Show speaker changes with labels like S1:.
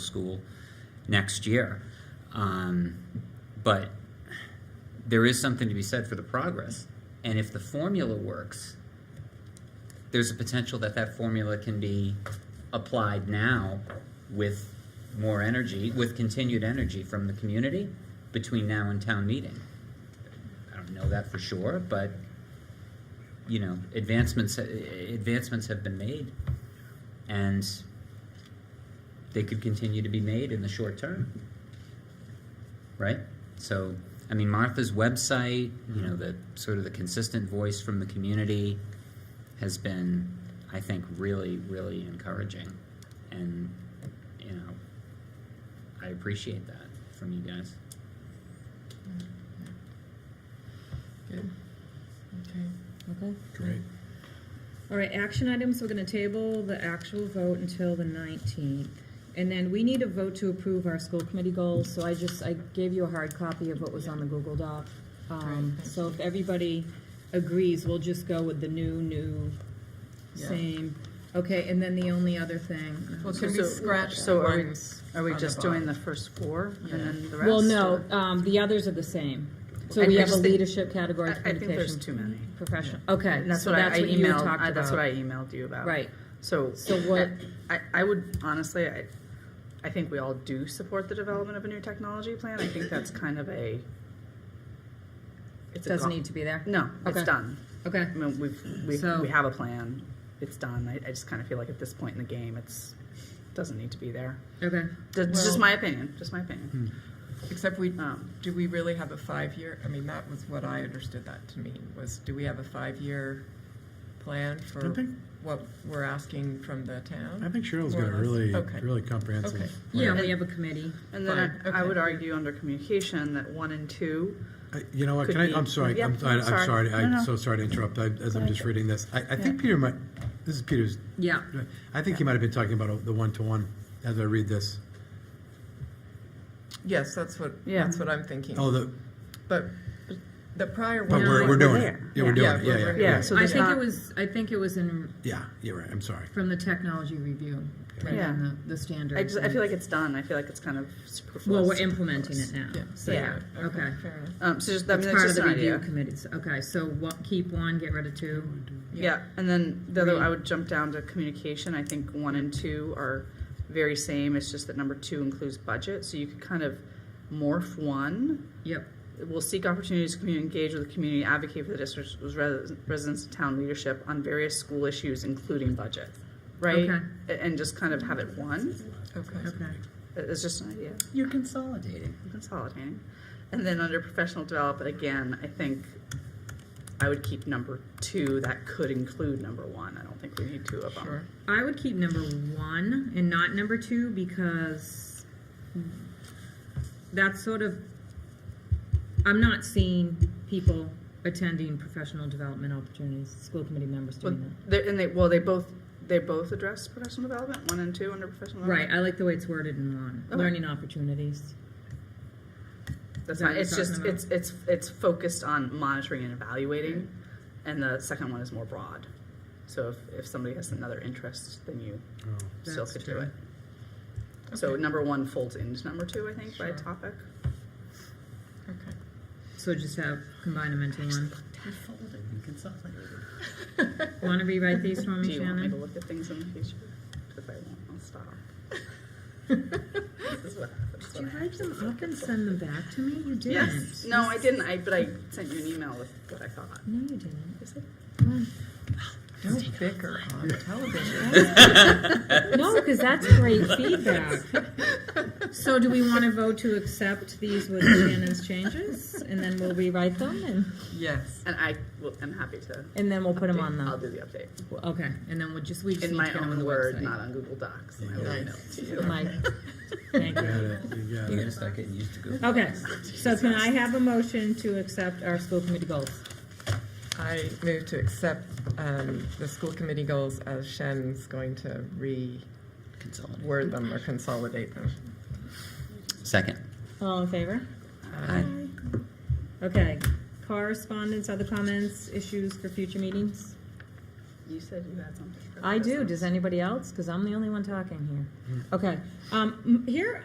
S1: school next year. Um, but there is something to be said for the progress. And if the formula works, there's a potential that that formula can be applied now with more energy, with continued energy from the community between now and town meeting. I don't know that for sure, but you know, advancements advancements have been made, and they could continue to be made in the short term, right? So, I mean, Martha's website, you know, the sort of the consistent voice from the community has been, I think, really, really encouraging, and you know, I appreciate that from you guys.
S2: Good. Okay.
S3: Okay.
S2: Great.
S3: All right, action items, we're gonna table the actual vote until the nineteenth. And then we need a vote to approve our school committee goals, so I just, I gave you a hard copy of what was on the Google Doc. Um,
S2: Great.
S3: so if everybody agrees, we'll just go with the new, new,
S2: Yeah.
S3: same. Okay, and then the only other thing.
S2: Well,
S4: can
S2: can
S4: we
S2: we
S4: scratch
S2: scratch
S4: the
S2: so are we,
S4: ones Are we just doing the first four and
S2: Yeah.
S4: then the rest?
S3: Well, no,
S4: or-
S3: um, the others are the same. So
S4: I-
S3: we
S4: I
S3: have a
S4: just think-
S3: leadership category,
S4: I I think there's
S3: communication,
S4: too many.
S3: professional, okay,
S4: And that's
S3: so
S4: what I
S3: that's
S4: I
S3: what you had
S4: emailed,
S3: talked
S4: I-
S3: about.
S4: that's what I emailed you about.
S3: Right,
S4: So.
S3: So what-
S4: I, I would honestly, I, I think we all do support the development of a new technology plan. I think that's kind of a.
S3: it
S4: It's a
S3: doesn't
S4: gone-
S3: need to be there,
S4: No, it's
S3: Okay.
S4: done.
S3: okay.
S4: I mean, we've, we,
S3: So-
S4: we have a plan. It's done. I, I just kind of feel like at this point in the game, it's, doesn't need to be there.
S3: Okay.
S4: That's
S2: Well-
S4: just my opinion, just my opinion.
S2: Except we,
S4: Um,
S2: do we really have a five-year, I mean, that was what I understood that to mean, was do we have a five-year plan
S5: I
S2: for
S5: think,
S2: what we're asking from the
S5: I
S2: town?
S5: think Cheryl's
S2: More
S5: got a
S2: or less.
S5: really,
S2: Okay.
S5: really
S2: Okay.
S5: comprehensive.
S3: Yeah, we have a committee.
S4: And then
S2: Fine,
S4: I, I
S2: okay.
S4: would argue under communication that one and two
S5: I- You know what,
S4: Could
S5: can I,
S4: be-
S5: I'm sorry,
S4: yeah,
S5: I'm, I-
S4: I'm sorry.
S5: I'm sorry,
S4: No, no.
S5: I'm so sorry to interrupt, I- as I'm just reading this. I, I think Peter might, this is Peter's,
S3: Yeah.
S5: I think he might have been talking about the one-to-one as I read this.
S2: Yes, that's what,
S4: Yeah.
S2: that's what I'm thinking.
S5: Oh, the,
S2: But the prior
S5: but
S2: one.
S5: we're, we're
S4: we're
S5: doing it.
S4: there.
S5: Yeah, we're
S2: Yeah.
S5: doing it, yeah,
S2: Yeah,
S5: yeah,
S2: we're-
S5: yeah.
S4: Yeah, so
S6: I
S4: there's
S6: think it
S4: not.
S6: was, I think it was in,
S5: Yeah, you're right, I'm sorry.
S6: from the technology review, right,
S4: Yeah.
S6: and the, the standards.
S4: I just I feel like it's done. I feel like it's kind of superfluous.
S6: Well, we're implementing it now.
S2: Yeah, so,
S4: Yeah.
S2: okay,
S6: Okay.
S2: fair enough.
S4: Um, so just, I mean,
S6: It's
S4: that's
S6: part of
S4: just
S6: the
S4: an
S6: review
S4: idea.
S6: committees, okay, so what, keep one, get rid of two,
S4: Yeah. and then the other,
S6: Three.
S4: I would jump down to communication. I think one and two are very same. It's just that number two includes budget, so you could kind of morph one.
S6: yep,
S4: We'll seek opportunities to community, engage with the community, advocate for the district's res- residents and town leadership on various school issues, including budget, right?
S6: Okay.
S4: A- And just kind of have it one.
S2: Okay.
S6: okay.
S4: It- It's just an idea.
S1: You're consolidating.
S4: consolidating. And then under professional development, again, I think I would keep number two. That could include number one. I don't think we need two of them.
S2: Sure.
S6: I would keep number one and not number two because that's sort of, I'm not seeing people attending professional development opportunities, school committee members
S4: Well,
S6: doing that.
S4: they and they well, they both they both address professional development. One and two under professional
S6: Right,
S4: development.
S6: I like the way it's worded in one,
S4: Okay.
S6: learning opportunities.
S4: That's
S6: Is that
S4: fine.
S6: what
S4: It's
S6: you're
S4: just
S6: talking
S4: it's
S6: about?
S4: it's it's focused on monitoring and evaluating, and the second one is more broad. So if, if somebody has another interest, then you
S5: Oh,
S4: still
S6: That's
S4: could do
S6: true.
S4: it. So
S2: Okay.
S4: number one folds into number two, I think,
S2: Sure.
S4: by topic.
S2: Okay.
S6: So just have, combine them into one.
S1: You're folding and consolidating.
S6: Wanna rewrite these for
S4: Do
S6: me,
S4: you want me
S6: Mm-hmm.
S4: to
S6: Shannon?
S4: look at things in the future? If I won't, I'll stop. This is what happens
S6: Did you
S4: when I-
S6: write them up and send them back to me? You didn't.
S4: Yes, no, I didn't, I, but I sent you an email with what I thought.
S6: No, you didn't.
S4: Is it?
S2: Don't bicker on television.
S6: No, because that's great feedback. So do we want to vote to accept these with Shannon's changes? And then we'll rewrite them and,
S2: Yes.
S4: And I, will I'm happy to.
S6: and then we'll put them on
S4: I'll
S6: the,
S4: do the update.
S6: okay, and then we'll just, we just
S4: In
S6: need to
S4: my
S6: get them on the
S4: own word, not
S6: website.
S4: on Google Docs. I
S5: Yeah.
S4: will
S2: Nice.
S4: email it to you.
S6: Like, thank
S5: You
S6: you.
S5: got it, you got
S1: You're
S5: it.
S1: gonna start getting used to Google.
S6: Okay, so can I have a motion to accept our school committee goals?
S2: I move to accept um, the school committee goals as Shen's going to reword
S1: Consolidate.
S2: them or consolidate them.
S1: Second.
S6: All in favor?
S1: Aye.
S6: Okay, correspondence, other comments, issues for future meetings?
S4: You said you had something. for
S6: I do.
S4: business.
S6: Does anybody else? Because I'm the only one talking here. Okay. Um, m- here,